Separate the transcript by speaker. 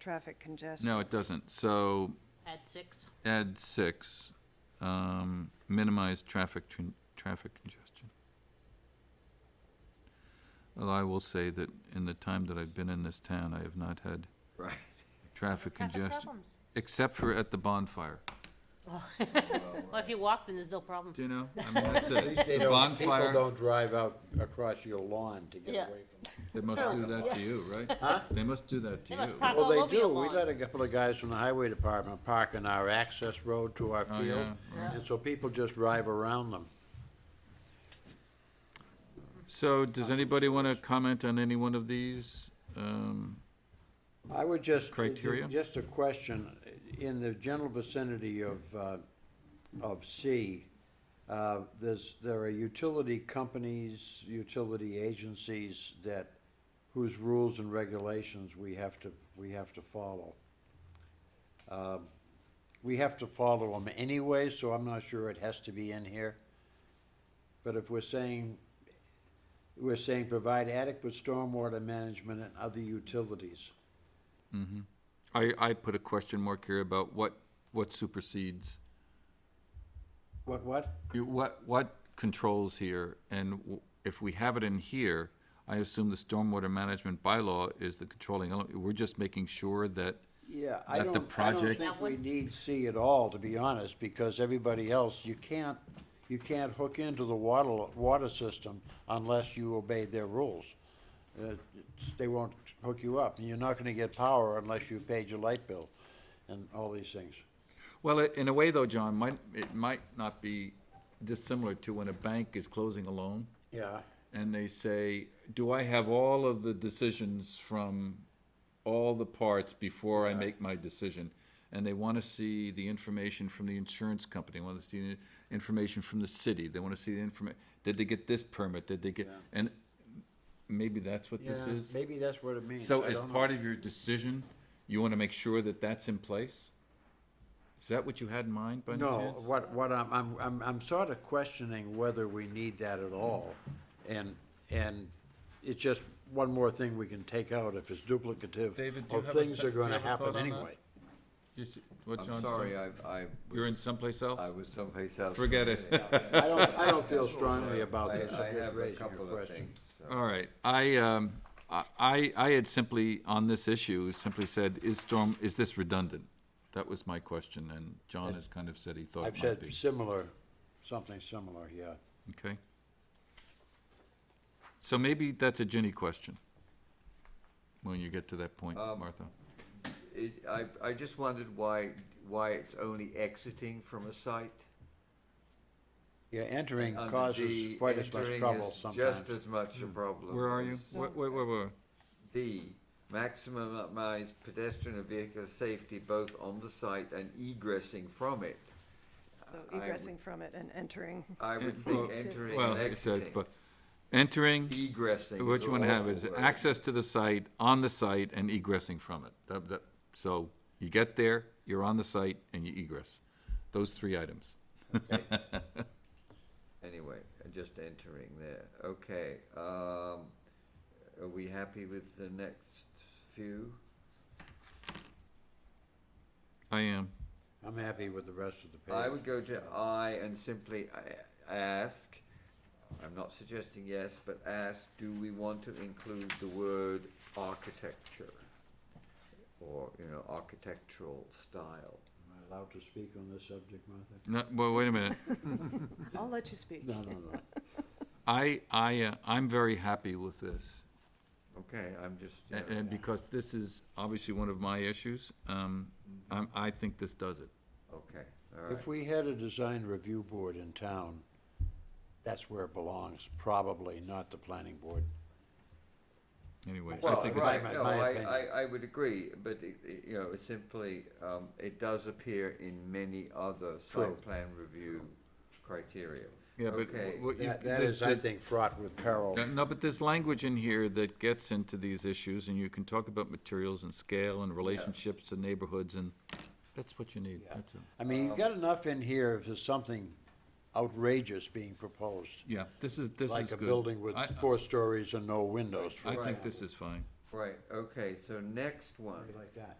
Speaker 1: traffic congestion.
Speaker 2: No, it doesn't. So
Speaker 3: Add six.
Speaker 2: add six, um, minimize traffic, tran- traffic congestion. Well, I will say that in the time that I've been in this town, I have not had
Speaker 4: Right.
Speaker 2: traffic congestion,
Speaker 3: problems.
Speaker 2: except for at the bonfire.
Speaker 3: Well, if you walk, then there's no problem.
Speaker 2: Do you know? I mean, that's
Speaker 4: At least they
Speaker 2: it. The
Speaker 4: don't, people
Speaker 2: bonfire,
Speaker 4: don't drive out across your lawn to get
Speaker 3: Yeah.
Speaker 4: away from it.
Speaker 2: they must do that to you, right?
Speaker 4: Huh?
Speaker 2: They must do that to
Speaker 3: They must
Speaker 2: you.
Speaker 3: park
Speaker 2: Oh,
Speaker 3: all
Speaker 4: Well, they
Speaker 3: over your
Speaker 4: do, we
Speaker 3: lawn.
Speaker 4: let a couple of guys from the highway department park in our access road to our
Speaker 2: yeah,
Speaker 4: field,
Speaker 2: right.
Speaker 4: and so people just drive around them.
Speaker 2: So does anybody want to comment on any one of these? Um,
Speaker 4: I would just. uh,
Speaker 2: Criteria?
Speaker 4: Just a question, in the general vicinity of, uh, of C, uh, there's, there are utility companies, utility agencies that, whose rules and regulations we have to, we have to follow. Um, We have to follow them anyway, so I'm not sure it has to be in here. But if we're saying, we're saying provide adequate stormwater management and other utilities.
Speaker 2: I, I put a question mark here about what, what supersedes
Speaker 4: What, what?
Speaker 2: You- What, what controls here, and w- if we have it in here, I assume the stormwater management bylaw is the controlling element. We're just making sure that,
Speaker 4: Yeah, I
Speaker 2: That the
Speaker 4: don't, I don't
Speaker 2: project-
Speaker 4: think we
Speaker 3: That
Speaker 4: need C at all, to be honest, because everybody else, you can't, you can't hook into the water, water system unless you obey their rules. Uh, it's- They won't hook you up, and you're not gonna get power unless you paid your light bill and all these things.
Speaker 2: well, i- in a way though, John, might, it might not be dissimilar to when a bank is closing a loan,
Speaker 4: Yeah,
Speaker 2: and they say, do I have all of the decisions from all the parts before I make my decision? And they want to see the information from the insurance company, want to see the information from the city, they want to see the informa, did they get this permit, did they get, and maybe that's what this is?
Speaker 4: maybe that's what it means.
Speaker 2: So as part of your decision, you want to make sure that that's in place? Is that what you had in mind by any
Speaker 4: No,
Speaker 2: chance?
Speaker 4: what, what I'm, I'm, I'm, I'm sort of questioning whether we need that at all. And, and it's just one more thing we can take out if it's duplicative
Speaker 2: David, do you
Speaker 4: of
Speaker 2: have a
Speaker 4: things
Speaker 2: sec-
Speaker 4: that are
Speaker 2: do you
Speaker 4: gonna
Speaker 2: have a
Speaker 4: happen
Speaker 2: thought on that?
Speaker 4: anyway.
Speaker 2: You s- What
Speaker 5: I'm
Speaker 2: John's
Speaker 5: sorry,
Speaker 2: doing?
Speaker 5: I, I.
Speaker 2: You're in
Speaker 5: was-
Speaker 2: someplace else?
Speaker 5: I was someplace else.
Speaker 2: Forget it.
Speaker 4: I don't, I don't feel strongly about
Speaker 5: I,
Speaker 4: this,
Speaker 5: I
Speaker 4: I'm just
Speaker 5: have a
Speaker 4: raising a
Speaker 5: couple of
Speaker 4: question.
Speaker 5: things. so-
Speaker 2: All right, I, um, I, I had simply, on this issue, simply said, is storm, is this redundant? That was my question, and John has kind of said he thought
Speaker 4: I've
Speaker 2: it might
Speaker 4: said
Speaker 2: be.
Speaker 4: similar, something similar, yeah.
Speaker 2: Okay? So maybe that's a Ginny question, when you get to that point,
Speaker 5: Um,
Speaker 2: Martha.
Speaker 5: It, I, I just wondered why, why it's only exiting from a site.
Speaker 4: Yeah, entering
Speaker 5: Under D,
Speaker 4: causes quite as much
Speaker 5: Um, entering
Speaker 4: trouble
Speaker 5: is
Speaker 4: sometimes.
Speaker 5: Just as much a problem.
Speaker 2: Hmm. Where are you?
Speaker 5: as
Speaker 2: Wait, wait, wait, wait.
Speaker 5: D, maximize pedestrian and vehicle safety both on the site and egressing from it.
Speaker 1: So
Speaker 5: I would-
Speaker 1: egressing from it and entering.
Speaker 5: I would
Speaker 2: Eh,
Speaker 5: think
Speaker 2: well,
Speaker 5: entering
Speaker 2: Well,
Speaker 5: and
Speaker 2: it says,
Speaker 5: exiting.
Speaker 2: but, entering,
Speaker 5: Egressing.
Speaker 2: what
Speaker 5: is
Speaker 2: you
Speaker 5: an
Speaker 2: want to have
Speaker 5: awful
Speaker 2: is
Speaker 5: word.
Speaker 2: access to the site, on the site, and egressing from it. That, that, so you get there, you're on the site, and you egress. Those three items.
Speaker 5: Anyway, uh, just entering there, okay, um, are we happy with the next few?
Speaker 2: I am.
Speaker 4: I'm happy with the rest of the page.
Speaker 5: I would go to I and simply a- ask, I'm not suggesting yes, but ask, do we want to include the word architecture? Or, you know, architectural style?
Speaker 4: Am I allowed to speak on this subject, Martha?
Speaker 2: No, well, wait a minute.
Speaker 1: I'll let you speak.
Speaker 4: No, no, no.
Speaker 2: I, I, uh, I'm very happy with this.
Speaker 5: Okay, I'm just, you
Speaker 2: And,
Speaker 5: know,
Speaker 2: and because this is obviously one of my issues, um, I'm, I think this does it.
Speaker 5: okay, all right,
Speaker 4: If we had a design review board in town, that's where it belongs, probably, not the planning board.
Speaker 2: Anyway, I
Speaker 5: Well,
Speaker 2: think it's,
Speaker 5: right,
Speaker 4: my-
Speaker 5: no,
Speaker 4: my
Speaker 5: I,
Speaker 4: opinion.
Speaker 5: I, I would agree, but it, it, you know, it's simply, um, it does appear in many other
Speaker 4: True.
Speaker 5: site plan review criteria.
Speaker 2: yeah, but
Speaker 5: Okay,
Speaker 2: what you,
Speaker 4: That, that
Speaker 2: this-
Speaker 4: is, I
Speaker 2: this-
Speaker 4: think, fraught with peril.
Speaker 2: Uh, No, but there's language in here that gets into these issues, and you can talk about materials and scale and relationships to neighborhoods, and that's what you need. That's it.
Speaker 4: I mean, you've got enough in here if there's something outrageous being proposed,
Speaker 2: Yeah, this is, this is good.
Speaker 4: like a building with
Speaker 2: I-
Speaker 4: four stories and no windows.
Speaker 2: I
Speaker 4: for
Speaker 2: think
Speaker 4: example.
Speaker 2: this is fine.
Speaker 5: right, okay, so next one.
Speaker 4: Like that.